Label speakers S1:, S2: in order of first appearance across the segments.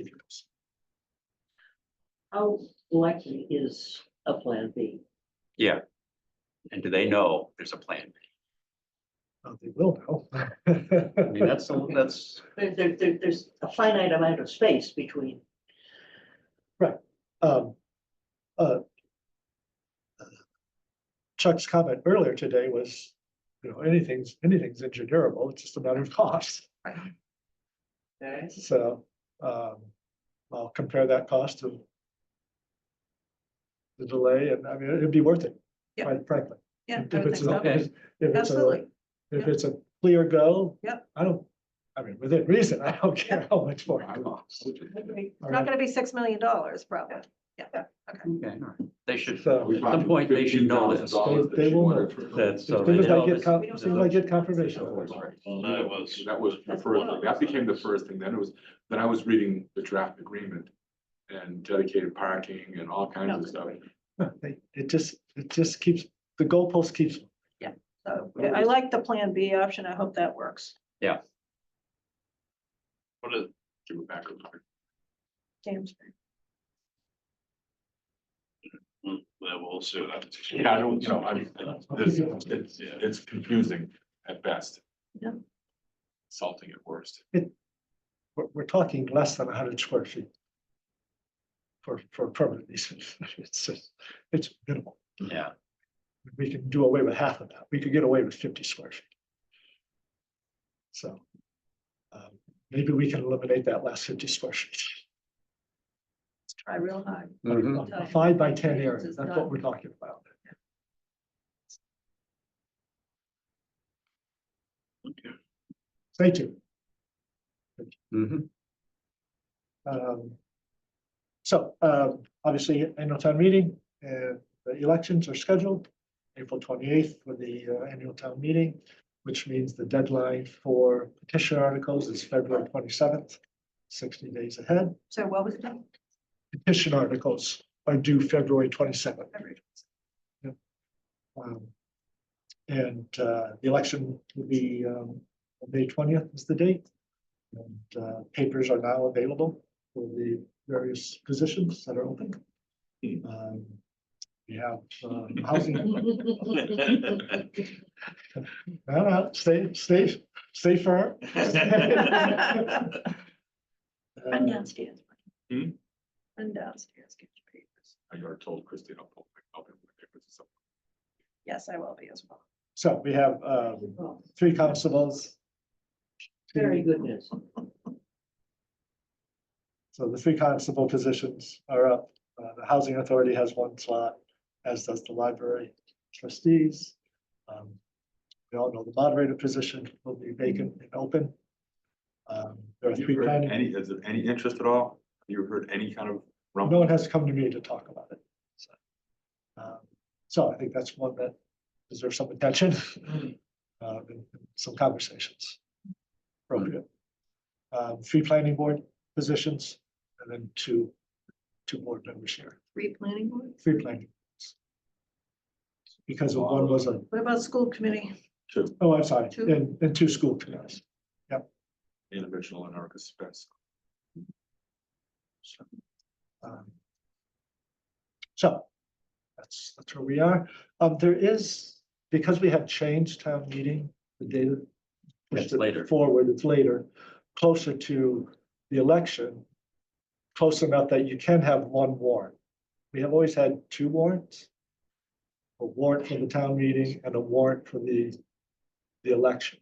S1: continues.
S2: How likely is a plan B?
S3: And do they know there's a plan?
S1: Uh, They will
S3: I
S1: know.
S3: mean, that's, the- that's,
S2: There, there, there- there's a finite amount of space between,
S1: Um, uh, Chuck's comment earlier today was, you know, anything's, anything's engineerable, it's just a matter of cost. So, um, I'll compare that cost to the delay and I mean, it'd be worth it.
S4: Yeah.
S1: quite Frankly.
S4: Yeah,
S1: If
S4: I would
S1: it's
S4: think so.
S1: a- if it's- if it's a-
S4: Absolutely.
S1: If
S4: Yeah.
S1: it's a clear go.
S4: Yep.
S1: I don't, I mean, within reason, I don't care how much more. it costs.
S4: It's
S1: All
S4: not
S1: right,
S4: gonna be six million dollars probably. Yeah,
S3: okay, all right. They should,
S1: So.
S3: at some point, they should know this,
S1: They- they will know.
S3: that, so
S1: As
S3: they
S1: soon as I
S3: know
S1: get,
S3: this.
S1: con- as soon as I get confirmation.
S5: That was. That was the
S2: That's
S5: first,
S2: one of
S5: thing.
S2: those.
S5: that became the first thing, then it was, then I was reading the draft agreement. And dedicated parking and all kinds of stuff,
S1: They- It just, it just keeps, the goalpost keeps,
S4: so I- I like the plan B option. I hope that works.
S5: what is? Give it back. a little bit.
S4: James,
S5: Yeah, I don't, you know, I mean, this, it's, it's confusing at best.
S4: Yeah.
S5: Salting at worst.
S1: we're, we're talking less than hundred square feet. For, for permanent easements. It's, just- it's minimal.
S3: Yeah,
S1: We can do away with half of that. We could get away with fifty square feet. So. um, Maybe we can eliminate that last fifty square feet.
S4: try real hard.
S3: Mhm.
S1: A Five by ten area, that's what we're talking about.
S5: Okay.
S1: Stay tuned.
S3: Mhm.
S1: Um, So, um, obviously, annual town meeting, uh, the elections are scheduled April twenty-eighth for the uh, annual town meeting, which means the deadline for petition articles is February twenty-seventh, sixty days ahead.
S4: So what was that?
S1: Petition articles are due February twenty-seventh. Um, And uh, the election will be um, May twentieth is the date. And uh, papers are now available for the various positions that are open. Um, We have um, housing, no, no, stay, stay, stay firm. Uh,
S4: Run
S1: Um,
S4: downstairs.
S5: Hmm?
S4: Run downstairs, get your papers.
S5: I already told Christine I'll pull my copy of my papers or something.
S4: Yes, I will be as well.
S1: So we have um,
S2: well,
S1: three constables.
S2: very good news.
S1: So the three constable positions are up. Uh, the housing authority has one slot, as does the library trustees. Um, We all know the moderator position will be vacant and open. Um, there are
S5: Have you
S1: three
S5: heard
S1: planning-
S5: Any, is it any interest at all? Have you heard any kind of rumble?
S1: no one has come to me to talk about it. So, um, So I think that's one that deserves some attention, uh, and and some conversations. Appropriate. Um, three planning board positions and then two, two board members here,
S4: Three planning boards.
S1: three planning. boards. Because of one was a,
S4: What about school committee?
S5: Two,
S1: oh, I'm sorry,
S4: Two.
S1: and, and two school committees.
S5: in original and Erica Spence.
S1: Um, So that's, that's where we are. Um, there is, because we have changed town meeting, the data. pushed
S3: It's
S1: it
S3: later.
S1: Forward, it's later, closer to the election. Close enough that you can have one warrant. We have always had two warrants. A warrant for the town meeting and a warrant for the, the election.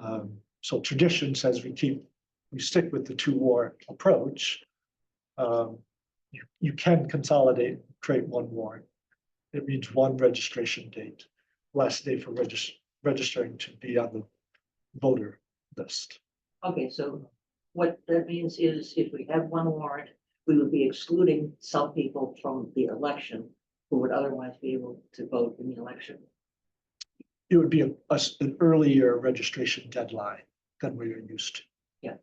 S1: Um, so tradition says we keep, we stick with the two warrant approach um, you, you can consolidate, create one warrant. It reads one registration date, last day for regis- registering to be on the voter list.
S2: Okay, so what that means is if we have one warrant, we would be excluding some people from the election who would otherwise be able to vote in the election.
S1: It would be a, a s- an earlier registration deadline than we are used to.
S2: Yeah.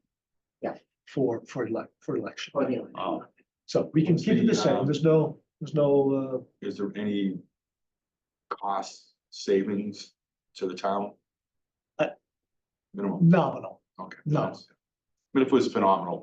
S2: Yeah.
S1: For, for elec- for election.
S2: or the election.
S3: Oh.
S1: So we can
S5: What's
S1: keep it
S5: the,
S1: the same.
S5: um,
S1: There's no, there's no, uh,
S5: Is there any cost savings to the town?
S1: Uh,
S5: Minimum.
S1: uh, nominal.
S5: Okay.
S1: no.
S5: that's- but it was phenomenal.